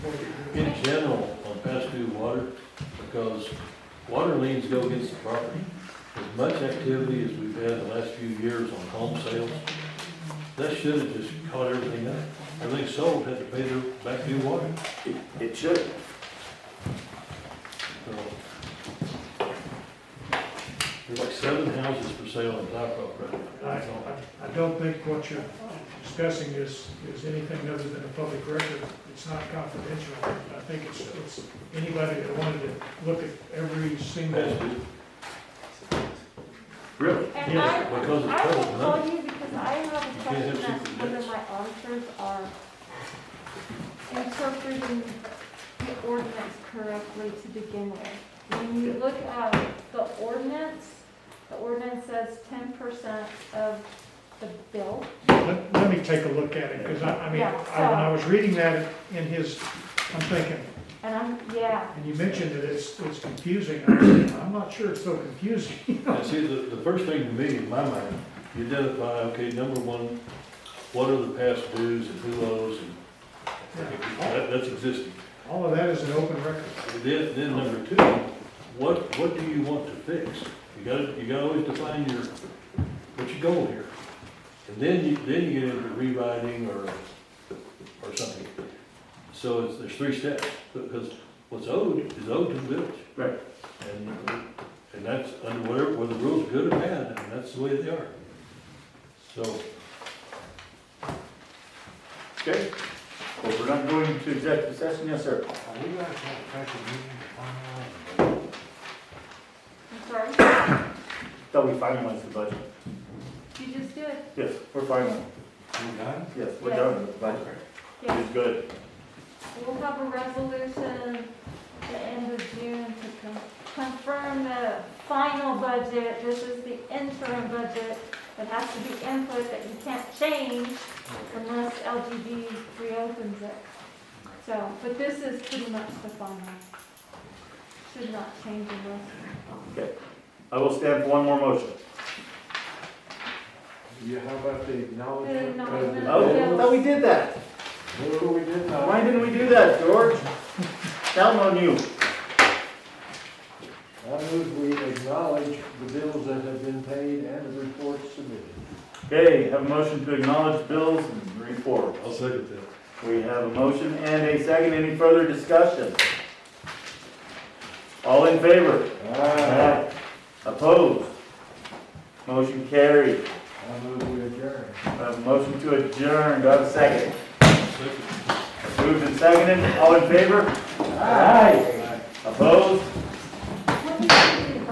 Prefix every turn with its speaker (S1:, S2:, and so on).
S1: water, because water liens go against the property. As much activity as we've had the last few years on home sales, that should have just caught everything up. Everything sold had to pay their back due water.
S2: It, it should.
S1: So, There's like seven houses for sale in Black Rock right now.
S3: I, I- I don't think what you're discussing is, is anything other than a public record. It's not confidential. I think it's, it's anybody that wanted to look at every single,
S1: That's good,
S2: Really?
S4: And
S3: Yes,
S4: I,
S1: because it's
S4: I will
S1: public money.
S4: call you because I have a
S1: can't have
S4: question
S1: secret
S4: as whether
S1: debts.
S4: my auditors are interpreting the ordinance correctly to begin with. When you look at the ordinance, the ordinance says ten percent of the bill.
S3: let, let me take a look at it, because I, I mean, I, when I was reading that in his, I'm thinking,
S4: And I'm, yeah,
S3: and you mentioned that it's, it's confusing. I was thinking, I'm not sure it's so confusing.
S1: And see, the, the first thing to me, in my mind, you identify, okay, number one, what are the past dues and who owes and that, that's existing.
S3: All of that is an open record.
S1: Then, then number two, what, what do you want to fix? You gotta, you gotta always define your, what's your goal here? And then you, then you get into rewriting or, or something. So it's, there's three steps, because what's owed is owed to the village.
S2: Right.
S1: And, and that's under whatever, whether the rules are good or bad, and that's the way they are. So,
S2: Okay. Well, we're not going to executive session, yes, sir.
S5: Are we gonna have a special meeting tomorrow?
S4: I'm sorry,
S2: That we finalize the budget.
S4: you just did,
S2: Yes, we're final.
S5: We done?
S2: Yes, we're done with the budget.
S4: yeah.
S2: It's good.
S4: We'll have a resolution the end of June to con- confirm the final budget. This is the interim budget that has to be input that you can't change unless LGB reopens it. So, but this is pretty much the final. Should not change unless.
S2: I will stand for one more motion.
S5: Yeah, how about the acknowledgement? of
S4: The
S5: the
S4: acknowledgement.
S2: Oh, I thought we did that.
S5: bill? Who we did that?
S2: Why didn't we do that, George? Down on you.
S5: I move we acknowledge the bills that have been paid and the reports submitted.
S2: Okay, have a motion to acknowledge bills and report.
S1: I'll second that.
S2: We have a motion and a second. Any further discussion? All in favor?
S5: Aye.
S2: Opposed? Motion carried.
S5: I move we adjourn.
S2: I have a motion to adjourn. Do I have a second?
S1: Second.
S2: Moved and seconded. All in favor? Aye.